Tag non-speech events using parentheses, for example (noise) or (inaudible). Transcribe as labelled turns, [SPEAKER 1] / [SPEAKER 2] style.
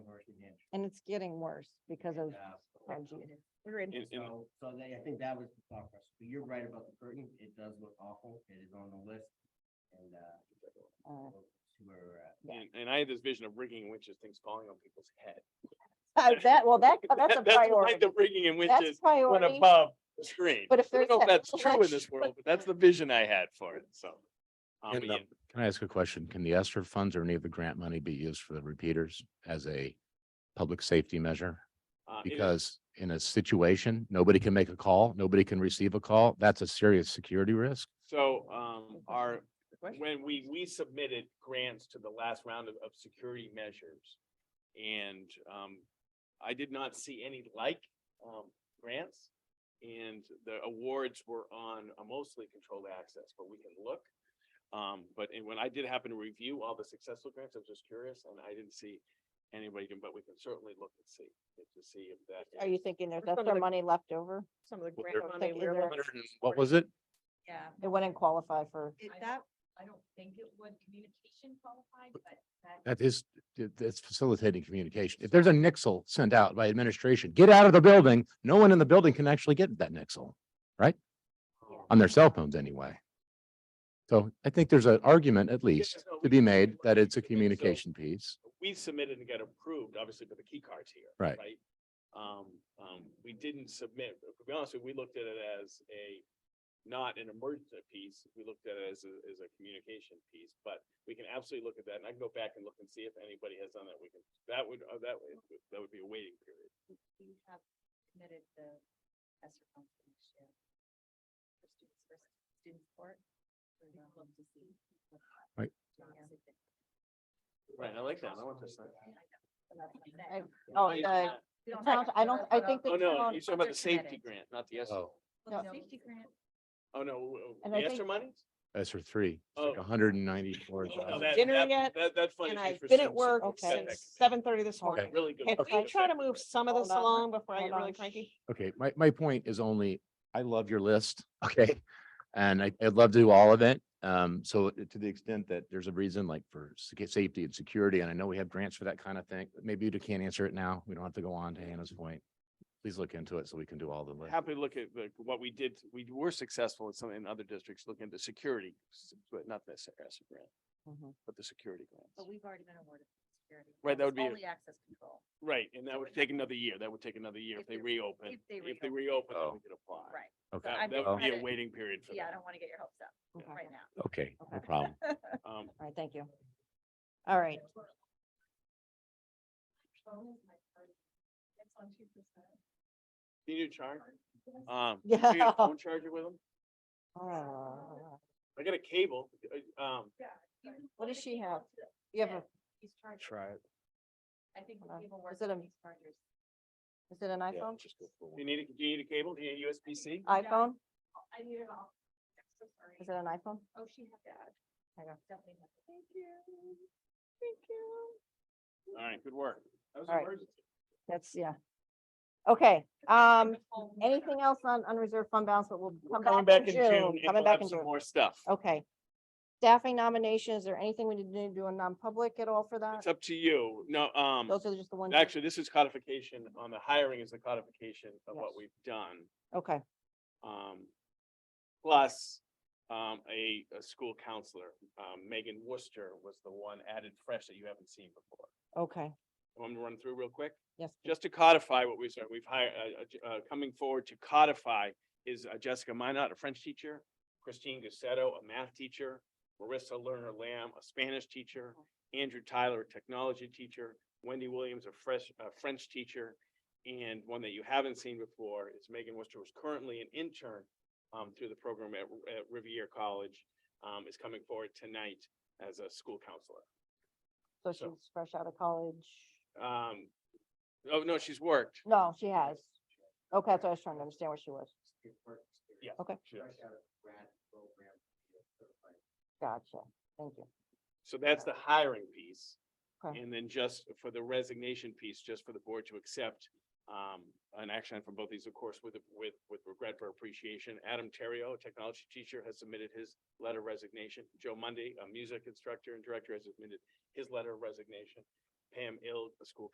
[SPEAKER 1] and it's getting worse because of,
[SPEAKER 2] Yeah.
[SPEAKER 1] Angie.
[SPEAKER 2] And- and-
[SPEAKER 3] So, so they, I think that was the thought process, but you're right about the curtain, it does look awful, it is on the list, and, uh.
[SPEAKER 1] Uh.
[SPEAKER 3] we'll See where we're at.
[SPEAKER 1] Yeah.
[SPEAKER 2] And, and I had this vision of rigging witches, things falling on people's head.
[SPEAKER 1] Uh, (laughs) that, well, that, that's
[SPEAKER 2] (laughs)
[SPEAKER 1] a
[SPEAKER 2] That- why
[SPEAKER 1] priority.
[SPEAKER 2] The rigging and
[SPEAKER 1] That's
[SPEAKER 2] witches went
[SPEAKER 1] priority.
[SPEAKER 2] above the screen.
[SPEAKER 1] But if
[SPEAKER 2] I
[SPEAKER 1] there's
[SPEAKER 2] don't know if
[SPEAKER 1] that
[SPEAKER 2] that's true in this
[SPEAKER 1] (laughs) flesh-
[SPEAKER 2] world, but that's the vision I had for it, so. um, but
[SPEAKER 4] And the-
[SPEAKER 2] yeah,
[SPEAKER 4] Can I ask a question? Can the ESTR funds or any of the grant money be used for the repeaters as a public safety measure?
[SPEAKER 2] uh, it is-
[SPEAKER 4] Because in a situation, nobody can make a call, nobody can receive a call. That's a serious security risk.
[SPEAKER 2] So, um, our,
[SPEAKER 1] question.
[SPEAKER 2] when we, we submitted grants to the last round of, of security measures. And, um, I did not see any like, um, grants. And the awards were on a mostly controlled access, but we can look. Um, but and when I did happen to review all the successful grants, I was just curious and I didn't see anybody, can- but we can certainly look and see, to see if that.
[SPEAKER 1] Are you thinking there's
[SPEAKER 5] Some of
[SPEAKER 1] extra
[SPEAKER 5] the-
[SPEAKER 1] money left over?
[SPEAKER 5] Some of the
[SPEAKER 4] Well,
[SPEAKER 5] grant
[SPEAKER 1] they're-
[SPEAKER 5] money
[SPEAKER 1] Like,
[SPEAKER 5] we
[SPEAKER 1] is
[SPEAKER 5] were
[SPEAKER 1] there-
[SPEAKER 5] looking
[SPEAKER 4] What was it?
[SPEAKER 6] Yeah,
[SPEAKER 1] It wouldn't qualify for,
[SPEAKER 6] it,
[SPEAKER 5] I
[SPEAKER 6] that, I don't think it would communication qualified, but that.
[SPEAKER 4] That is, it- it's facilitating communication. If there's a nixle sent out by administration, get out of the building. No one in the building can actually get that nixle
[SPEAKER 2] um,
[SPEAKER 4] on their cell phones anyway. So I think there's an argument at least
[SPEAKER 2] no, we
[SPEAKER 4] to be
[SPEAKER 2] can-
[SPEAKER 4] made that it's a
[SPEAKER 2] So-
[SPEAKER 4] communication piece.
[SPEAKER 2] we submitted and got approved, obviously, with the key cards here.
[SPEAKER 4] Right.
[SPEAKER 2] Right? Um, um, we didn't submit, to be honest, with you, we looked at it as a, not an emergency piece, we looked at it as a, as a communication piece, but we can absolutely look at that, and I can go back and look and see if anybody has done that, we can, that would, uh, that would, that would be a waiting period.
[SPEAKER 6] We we have committed the ESSER funds for next year. For students, for student support. We'd love to see what-
[SPEAKER 4] Right.
[SPEAKER 2] Right, I like that, I want this thing.
[SPEAKER 1] I- oh,
[SPEAKER 2] Right.
[SPEAKER 5] uh,
[SPEAKER 1] the,
[SPEAKER 6] We
[SPEAKER 1] the town- I don't- I think
[SPEAKER 2] Oh,
[SPEAKER 1] the
[SPEAKER 2] no,
[SPEAKER 1] town
[SPEAKER 2] you're talking about the safety
[SPEAKER 6] grant.
[SPEAKER 2] grant, not the
[SPEAKER 4] Oh.
[SPEAKER 2] ESER,
[SPEAKER 6] Well, the
[SPEAKER 1] No.
[SPEAKER 6] safety grant,
[SPEAKER 2] oh, no, w-
[SPEAKER 1] And
[SPEAKER 2] the
[SPEAKER 1] I think-
[SPEAKER 2] ESER money?
[SPEAKER 4] That's for three, It's like
[SPEAKER 2] Oh.
[SPEAKER 4] hundred and ninety-four
[SPEAKER 2] Oh, no,
[SPEAKER 4] thousand.
[SPEAKER 2] that-
[SPEAKER 5] dinner
[SPEAKER 2] that-
[SPEAKER 5] yet,
[SPEAKER 2] That, that funding
[SPEAKER 5] And I've
[SPEAKER 2] is for
[SPEAKER 5] been at
[SPEAKER 2] Simpson.
[SPEAKER 5] work
[SPEAKER 1] Okay.
[SPEAKER 2] Set that
[SPEAKER 5] since
[SPEAKER 2] committee.
[SPEAKER 5] seven thirty this morning.
[SPEAKER 2] Really good.
[SPEAKER 5] If
[SPEAKER 2] point.
[SPEAKER 5] I try to move some of this
[SPEAKER 1] Hold on.
[SPEAKER 5] along before I
[SPEAKER 1] Hold
[SPEAKER 5] get really
[SPEAKER 1] on.
[SPEAKER 5] cranky,
[SPEAKER 4] Okay, my, my point is only, I love your list, (laughs) okay? And I, I'd love to do all of it. Um, so to the extent that there's a reason like for secu- safety and security, and I know we have grants for that kind of thing, but maybe you can't answer it now. We don't have to go on to Hannah's point. Please look into it so we can do all the list.
[SPEAKER 2] happy to look at the, what we did, we were successful in some, in other districts, looking at the security, s- but not the SRS grant,
[SPEAKER 1] Mhm.
[SPEAKER 2] but the security
[SPEAKER 6] but
[SPEAKER 2] grants.
[SPEAKER 6] we've already been awarded security.
[SPEAKER 2] Right, that
[SPEAKER 6] It's
[SPEAKER 2] would be a-
[SPEAKER 6] Only access control,
[SPEAKER 2] Right, and that would take another year, that would take another year if
[SPEAKER 6] If
[SPEAKER 2] they
[SPEAKER 6] they-
[SPEAKER 2] reopen,
[SPEAKER 6] if they
[SPEAKER 2] if they
[SPEAKER 6] reopen.
[SPEAKER 2] reopen, then
[SPEAKER 4] Oh.
[SPEAKER 2] we could apply.
[SPEAKER 6] right.
[SPEAKER 4] Okay,
[SPEAKER 2] That,
[SPEAKER 6] I'm
[SPEAKER 2] that
[SPEAKER 6] just
[SPEAKER 2] would be
[SPEAKER 6] trying
[SPEAKER 2] a
[SPEAKER 6] to-
[SPEAKER 2] waiting period for
[SPEAKER 6] Yeah, I
[SPEAKER 2] that.
[SPEAKER 6] don't want to get your hopes up
[SPEAKER 1] okay,
[SPEAKER 6] right now.
[SPEAKER 4] okay, no
[SPEAKER 1] Okay.
[SPEAKER 4] problem.
[SPEAKER 2] Um,
[SPEAKER 1] all right, thank you. All right,
[SPEAKER 6] That's on two percent.
[SPEAKER 2] do you need a
[SPEAKER 6] (laughs)
[SPEAKER 2] charger? Um,
[SPEAKER 1] (laughs)
[SPEAKER 2] do
[SPEAKER 1] yeah.
[SPEAKER 2] (laughs) you have a phone charger with them?
[SPEAKER 1] Oh,
[SPEAKER 2] I got a cable, uh, um,
[SPEAKER 1] What does she have? You have a,
[SPEAKER 6] He's charged.
[SPEAKER 4] Try it.
[SPEAKER 6] I think
[SPEAKER 1] Hold on.
[SPEAKER 6] people
[SPEAKER 1] Is
[SPEAKER 6] work
[SPEAKER 1] it a-
[SPEAKER 6] on these chargers.
[SPEAKER 1] is it an iPhone?
[SPEAKER 2] do you need, a- do you need a cable, do you need a USB-C?
[SPEAKER 6] I-
[SPEAKER 1] iPhone?
[SPEAKER 6] I need it all. I'm so sorry.
[SPEAKER 1] Is it an iPhone?
[SPEAKER 6] Oh, she had that.
[SPEAKER 1] I know.
[SPEAKER 6] Definitely. had that. Thank you. Thank you.
[SPEAKER 2] All right, good work. That was
[SPEAKER 1] All right.
[SPEAKER 2] emergency.
[SPEAKER 1] That's, yeah. Okay,
[SPEAKER 5] (laughs)
[SPEAKER 1] um,
[SPEAKER 6] Oh, my God.
[SPEAKER 1] anything else on unreserved fund balance, but we'll
[SPEAKER 2] We're
[SPEAKER 1] come back in June.
[SPEAKER 2] and
[SPEAKER 1] Coming
[SPEAKER 2] we'll
[SPEAKER 1] back
[SPEAKER 2] have
[SPEAKER 1] in
[SPEAKER 2] some
[SPEAKER 1] June. Oh,
[SPEAKER 2] More stuff.
[SPEAKER 1] Okay. Staffing nomination, is there anything we need to do in non-public at all for that?
[SPEAKER 2] It's up to you, no, um.
[SPEAKER 1] Those are just the ones.
[SPEAKER 2] Actually, this is codification on the hiring is the codification of what
[SPEAKER 1] Yes.
[SPEAKER 2] we've done.
[SPEAKER 1] Okay,
[SPEAKER 2] Um, plus, um, a, a school counselor, um, Megan Worcester was the one added fresh that you haven't seen before.
[SPEAKER 1] okay,
[SPEAKER 2] Want me to run through real quick?
[SPEAKER 1] yes. please.
[SPEAKER 2] Just to codify what we said, we've hired, uh, uh, coming forward to codify is uh, Jessica Minot, a French teacher, Christine Gussetto, a math teacher, Marissa Lerner Lamb, a Spanish teacher, Andrew Tyler, a technology teacher, Wendy Williams, a fresh, a French teacher, and one that you haven't seen before is Megan Worcester, who's currently an intern um, through the program at, at Riviera College, um, is coming forward tonight as a school counselor.
[SPEAKER 1] So she's fresh out of college.
[SPEAKER 2] Um, oh, no, she's worked.
[SPEAKER 1] No, she has. Okay, that's what I was trying to understand where she was.
[SPEAKER 3] Your work experience.
[SPEAKER 2] Yeah.
[SPEAKER 1] Okay.
[SPEAKER 2] she is.
[SPEAKER 3] Fresh out of grad program, you're certified.
[SPEAKER 1] Gotcha. Thank you.
[SPEAKER 2] So that's the hiring piece.
[SPEAKER 1] Okay.
[SPEAKER 2] And then just for the resignation piece, just for the board to accept um, an action item from both these, of course, with, with, with regret for appreciation. Adam Terrio, a technology teacher, has submitted his letter of resignation. Joe Monday, a music instructor and director, has submitted his letter of resignation. Pam Ill, a school